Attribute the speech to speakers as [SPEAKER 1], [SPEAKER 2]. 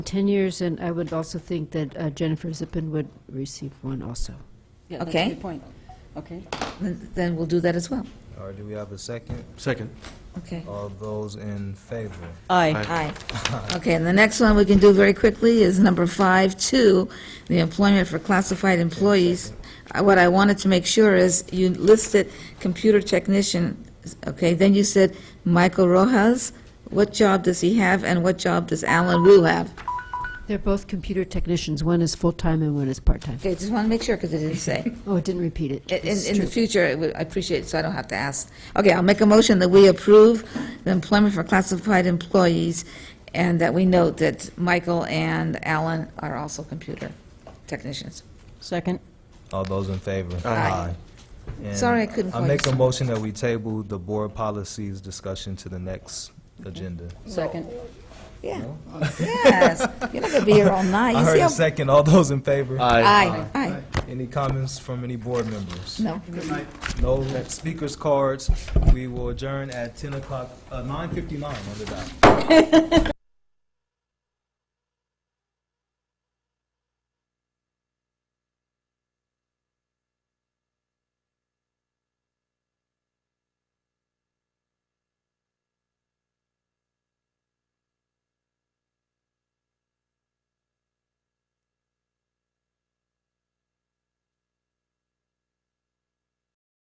[SPEAKER 1] 10 years, and I would also think that uh, Jennifer Zippin would receive one also.
[SPEAKER 2] Yeah, that's
[SPEAKER 3] Okay.
[SPEAKER 2] a good point. Okay.
[SPEAKER 3] Then then we'll do that as well.
[SPEAKER 4] All right, do we have a second?
[SPEAKER 5] Second.
[SPEAKER 3] Okay.
[SPEAKER 4] All those in favor?
[SPEAKER 2] Aye.
[SPEAKER 3] Aye. Okay, and the next one we can do very quickly is number five, two, the employment for classified employees. Uh, What I wanted to make sure is, you listed computer technician, okay, then you said Michael Rojas. What job does he have, and what job does Alan Wu have?
[SPEAKER 1] They're both computer technicians. One is full-time and one is part-time.
[SPEAKER 3] Okay, just want to make sure, because it didn't say.
[SPEAKER 1] Oh, I didn't repeat it.
[SPEAKER 3] In,
[SPEAKER 1] It's
[SPEAKER 3] in the
[SPEAKER 1] true.
[SPEAKER 3] future, I would- I appreciate it, so I don't have to ask. Okay, I'll make a motion that we approve the employment for classified employees, and that we note that Michael and Alan are also computer technicians.
[SPEAKER 2] Second.
[SPEAKER 4] All those in favor?
[SPEAKER 3] Aye.
[SPEAKER 4] And
[SPEAKER 3] Sorry, I couldn't
[SPEAKER 4] I
[SPEAKER 3] quite-
[SPEAKER 4] make a motion that we table the board policies discussion to the next agenda.
[SPEAKER 2] Second.
[SPEAKER 3] Yeah, yes, you're not gonna be here all night.
[SPEAKER 4] I
[SPEAKER 3] You see
[SPEAKER 4] heard a
[SPEAKER 3] how-
[SPEAKER 4] second, all those in favor?
[SPEAKER 3] Aye, aye,
[SPEAKER 4] Any comments from any board members?
[SPEAKER 3] no.
[SPEAKER 4] No speakers cards. We will adjourn at ten o'clock, uh, nine fifty-nine on the dot.